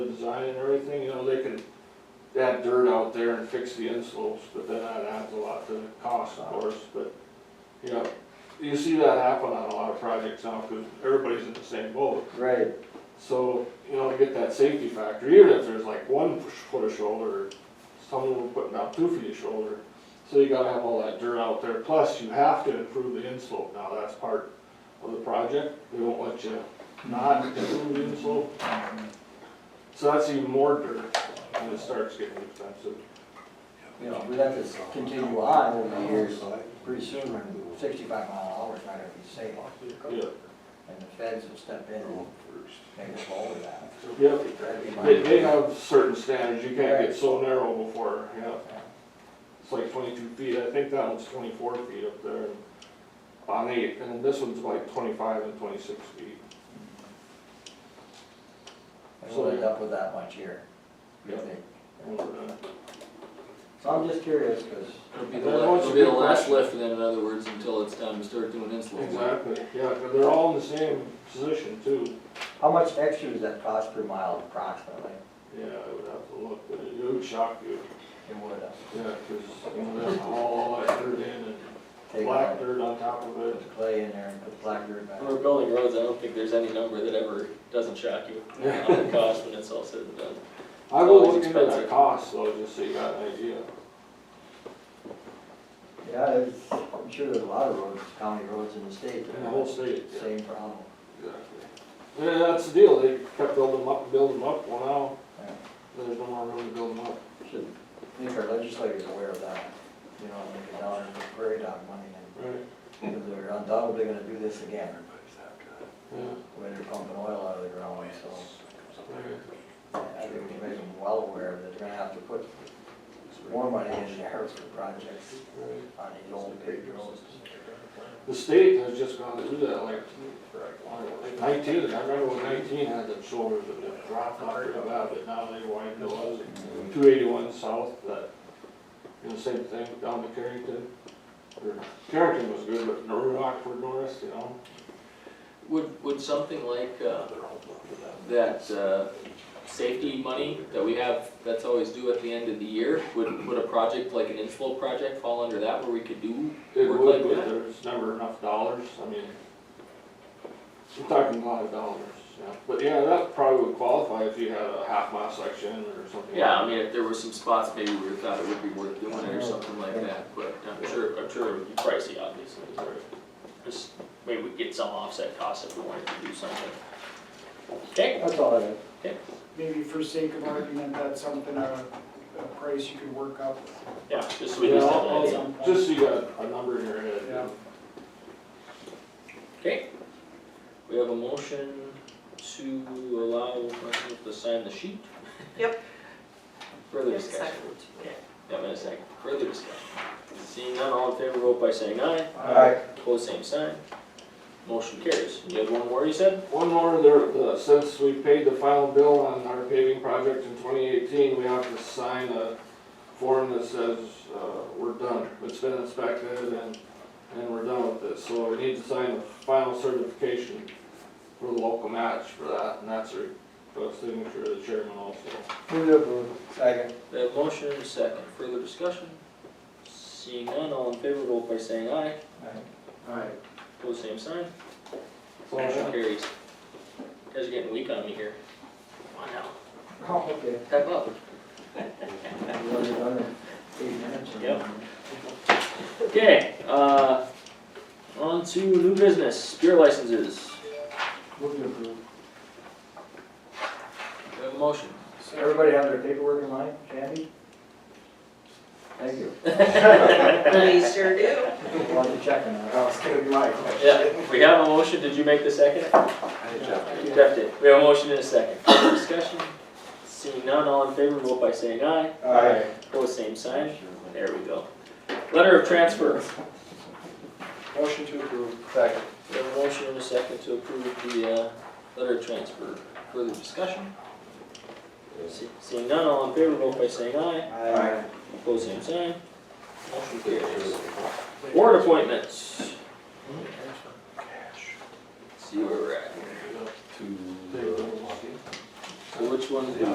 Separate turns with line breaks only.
design and everything, you know, they could add dirt out there and fix the inslopes, but then that adds a lot to the cost, of course, but, you know, you see that happen on a lot of projects now, cause everybody's in the same boat.
Right,
So, you know, to get that safety factor, even if there's like one push- foot of shoulder, someone were putting out two feet of shoulder. So you gotta have all that dirt out there, plus you have to improve the inslope, now that's part of the project, they won't let you not improve the inslope. So that's even more dirt, and it starts getting expensive.
you know, we let this continue on over the years, pretty soon, sixty-five mile an hour is not gonna be safe.
Yeah,
And the feds will step in and make us all of that.
yep,
That'd be my-
they, they have certain standards, you can't get so narrow before, yeah. It's like twenty-two feet, I think that one's twenty-four feet up there on eight, and then this one's like twenty-five and twenty-six feet.
And we'll end up with that much here, I
Yeah.
think.
And, uh,
So I'm just curious, because
It'll be
And
the,
then
la-
once
it'll
you
be the
get
last
that-
lift then, in other words, until it's time to start doing insulation.
Exactly, yeah, and they're all in the same position too,
how much extra does that cost per mile approximately?
yeah, I would have to look, but it would shock you,
It would, uh,
yeah, cause, you know, that's all that dirt in and
take
black
all
dirt on top of
the
it.
clay in there and put black dirt back.
When we're building roads, I don't think there's any number that ever doesn't shock you
Yeah.
on the cost when it's all said and done.
I will
always
look into that
expensive.
cost though, just so you got an idea,
Yeah, it's, I'm sure there's a lot of roads, county roads in the state that
in the whole state, yeah.
same problem.
Exactly. Yeah, that's the deal, they kept building them up and building them up, well
Yeah.
now, there's no more room to build them up.
Should make our legislators aware of that, you know, when they get down and put prairie dog money in,
Right.
because they're undoubtedly gonna do this again,
Yeah,
when they're pumping oil out of the ground, so. I think we make them well aware that they're gonna have to put more money in there for projects
right.
on these old big roads.
The state has just gone through that, like, like nineteen, I remember when nineteen had the shoulders that just dropped off real bad, but now they widened the ones. Two eighty-one south, that, you know, same thing down to Carrington. Or, Carrington was good, but North Rockford North, you know,
Would, would something like, uh, that, uh, safety money that we have, that's always due at the end of the year, would, would a project like an inflow project fall under that where we could do?
It
work
would,
like
but
that?
there's never enough dollars, I mean, we're talking a lot of dollars, yeah, but yeah, that probably would qualify if you had a half mile section or something.
Yeah, I mean, if there were some spots maybe we thought it would be worth doing it or something like that, but
I'm
I'm sure.
sure, I'm sure it would be pricey, obviously, but just, maybe we'd get some offset costs if we wanted to do something. Okay,
That's all I have.
maybe for sake of argument, that's something, a, a price you could work up.
yeah, just so we
Yeah,
just have an
I'll-
idea.
I'll- Just so you got a number in your head.
Yeah.
Okay, we have a motion to allow Russell to sign the sheet.
Yep.
Further
Yep,
discussion.
second. Okay.
Yeah, in a second, further discussion. Seeing none, all in favor, vote by saying aye. Pose same sign. Motion carries. You had one more, you said?
One more, there, uh, since we paid the final bill on our paving project in twenty eighteen, we have to sign a form that says, uh, we're done, it's been inspected and, and we're done with this, so we need to sign the final certification for the local match for that, and that's a, a signature of the chairman also.
Move to approve. Second.
We have motion and a second, further discussion. Seeing none, all in favor, vote by saying aye.
Alright.
Pose same sign.
So,
Motion
yeah,
carries. Guys are getting weak on me here. Come on now,
Oh, okay.
step up.
We've already done it. Eight minutes.
Yep. Okay, uh, on to new business, beer licenses.
Move to approve.
We have a motion.
Everybody have their paperwork in line, Sandy? Thank you.
We sure do.
Want to check on that? was gonna be my
Yeah, we have a motion, did you make the second?
question.
Jeff did. We have a motion and a second. Further discussion? Seeing none, all in favor, vote by saying aye.
Alright.
Pose same sign. There we go. Letter of transfer.
Motion to approve.
Second.
We have a motion and a second to approve the, uh, letter of transfer. Further discussion? See- Seeing none, all in favor, vote by saying aye.
Alright.
Pose same sign. Motion carries. Board appointments.
uh,
See where we're at.
take them.
uh,
So which one?